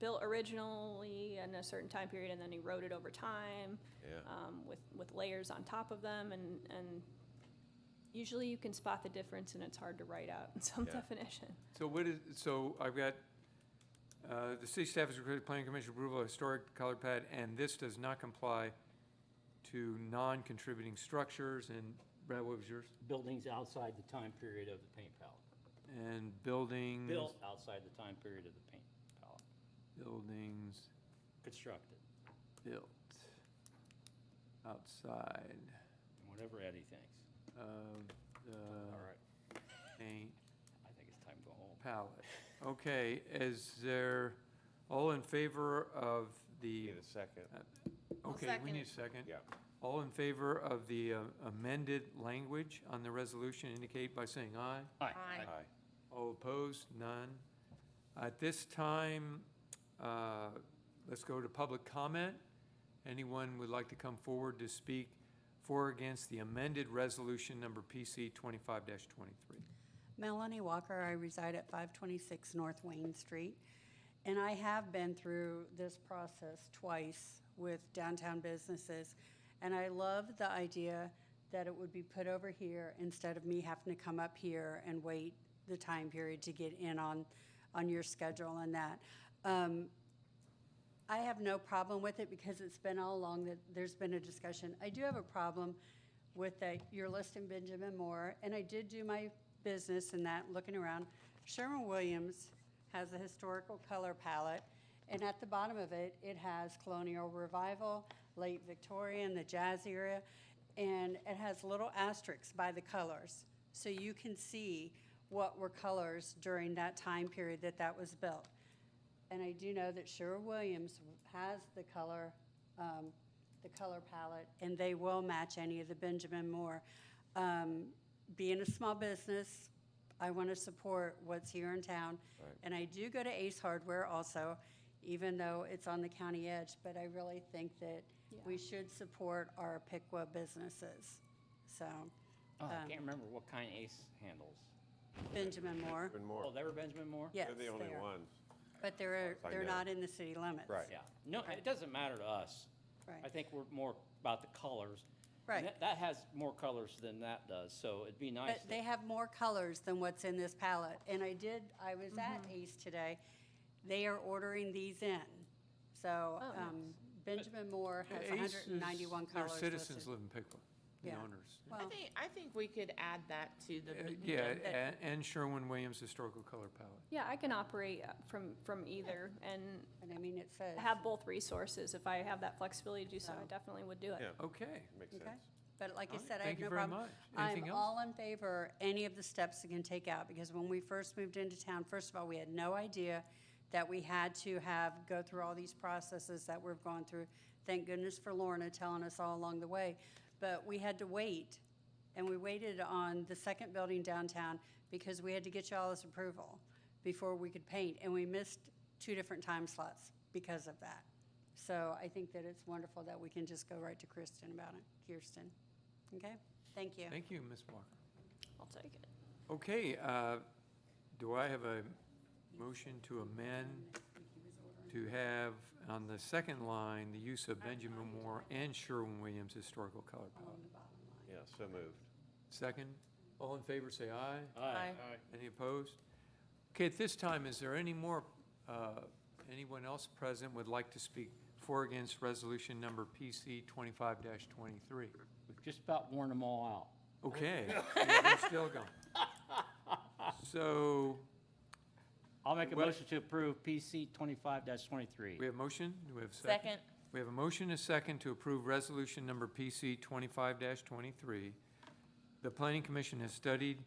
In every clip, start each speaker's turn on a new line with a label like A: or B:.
A: built originally in a certain time period and then eroded over time
B: yeah.
A: um, with, with layers on top of them and, and usually you can spot the difference and it's hard to write out in some
B: Yeah.
A: definition.
C: So what is, so I've got, uh, the city staff has requested planning commission approval of historic colored pad, and this does not comply to non-contributing structures, and Brad, what was yours?
D: Buildings outside the time period of the paint palette.
C: And buildings.
D: Built outside the time period of the paint palette.
C: Buildings
D: Constructed,
C: built outside
D: whatever Eddie thinks.
C: of
D: All
C: the
D: right,
C: paint
D: I think it's time to go home.
C: palette. Okay, is there, all in favor of the,
B: Need a second,
E: I'll
C: okay, we
E: second
C: need a
E: it.
C: second.
B: yeah.
C: All in favor of the uh, amended language on the resolution indicate by saying aye.
E: Aye.
B: Aye.
C: All opposed, none. At this time, uh, let's go to public comment. Anyone would like to come forward to speak for or against the amended resolution number PC 25-23?
F: Melanie Walker, I reside at 526 North Wayne Street. And I have been through this process twice with downtown businesses. And I love the idea that it would be put over here instead of me having to come up here and wait the time period to get in on, on your schedule and that. Um, I have no problem with it because it's been all along that there's been a discussion. I do have a problem with that you're listing Benjamin Moore, and I did do my business in that, looking around. Sherman-Williams has a historical color palette, and at the bottom of it, it has colonial revival, late Victorian, the jazz era, and it has little asterisks by the colors. So you can see what were colors during that time period that that was built. And I do know that Sherwin Williams has the color, um, the color palette, and they will match any of the Benjamin Moore. Um, being a small business, I want to support what's here in town. And I do go to Ace Hardware also, even though it's on the county edge, but I really think that we should support our Piqua businesses. So,
D: Oh, I
F: Um,
D: can't remember what kind Ace handles.
F: Benjamin Moore,
B: Even
D: Oh,
B: more.
D: they were Benjamin Moore?
F: yes,
B: They're the only
F: they are.
B: ones.
F: But they're,
B: I
F: they're
B: know.
F: not in the city limits.
B: Right.
D: Yeah, no, it doesn't matter to us.
F: Right.
D: I think we're more about the colors. And
F: Right.
D: that- That has more colors than that does, so it'd be nice.
F: But
D: that-
F: they have more colors than what's in this palette. And I did, I was at Ace today. They are ordering these in. So
A: Oh,
F: um, Benjamin Moore has
C: Ace is-
F: 191 colors
C: Their
F: listed.
C: citizens live in Piqua, the
F: Yeah.
C: owners.
E: I
F: Well,
E: think, I think we could add that to
C: Uh,
E: the.
C: Yeah,
E: that-
C: a- and Sherwin-Williams Historical Color Palette.
A: Yeah, I can operate uh, from, from either and
F: but I mean, it says.
A: have both resources. If I have that flexibility to do so, I definitely would do it.
B: Yeah.
C: Okay.
B: Makes
F: Okay.
B: sense.
F: But like I
C: All right,
F: said, I
C: thank
F: have
C: you
F: no
C: very
F: problem.
C: much. Anything
F: I'm
C: else?
F: all in favor, any of the steps you can take out, because when we first moved into town, first of all, we had no idea that we had to have, go through all these processes that we've gone through. Thank goodness for Lorna telling us all along the way. But we had to wait, and we waited on the second building downtown because we had to get y'all's approval before we could paint, and we missed two different time slots because of that. So I think that it's wonderful that we can just go right to Kristen about it, Kirsten. Okay, thank you.
C: Thank you, Ms. Walker.
A: I'll take it.
C: Okay, uh, do I have a motion to amend to have on the second line, the use of Benjamin Moore and Sherwin-Williams Historical Color Palette?
B: Yeah, so moved.
C: Second, all in favor, say aye.
D: Aye.
C: Any opposed? Okay, at this time, is there any more, uh, anyone else present would like to speak for or against resolution number PC 25-23?
D: We've just about worn them all out.
C: Okay, yeah, we're still going. So,
D: I'll make a
C: Well-
D: motion to approve PC twenty-five twenty-three.
C: we have motion, do we have second?
E: Second.
C: We have a motion, and a second, to approve resolution number PC 25-23. The Planning Commission has studied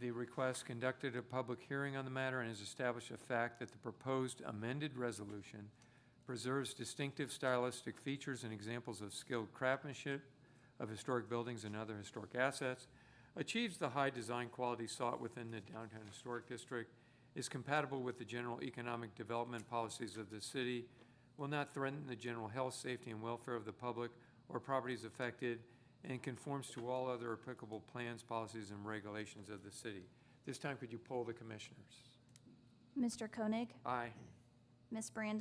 C: the request, conducted a public hearing on the matter, and has established a fact that the proposed amended resolution preserves distinctive stylistic features and examples of skilled craftsmanship of historic buildings and other historic assets, achieves the high design quality sought within the downtown historic district, is compatible with the general economic development policies of the city, will not threaten the general health, safety, and welfare of the public or properties affected, and conforms to all other applicable plans, policies, and regulations of the city. This time, could you poll the commissioners?
G: Mr. Koenig,
C: Aye.
G: Ms. Brandon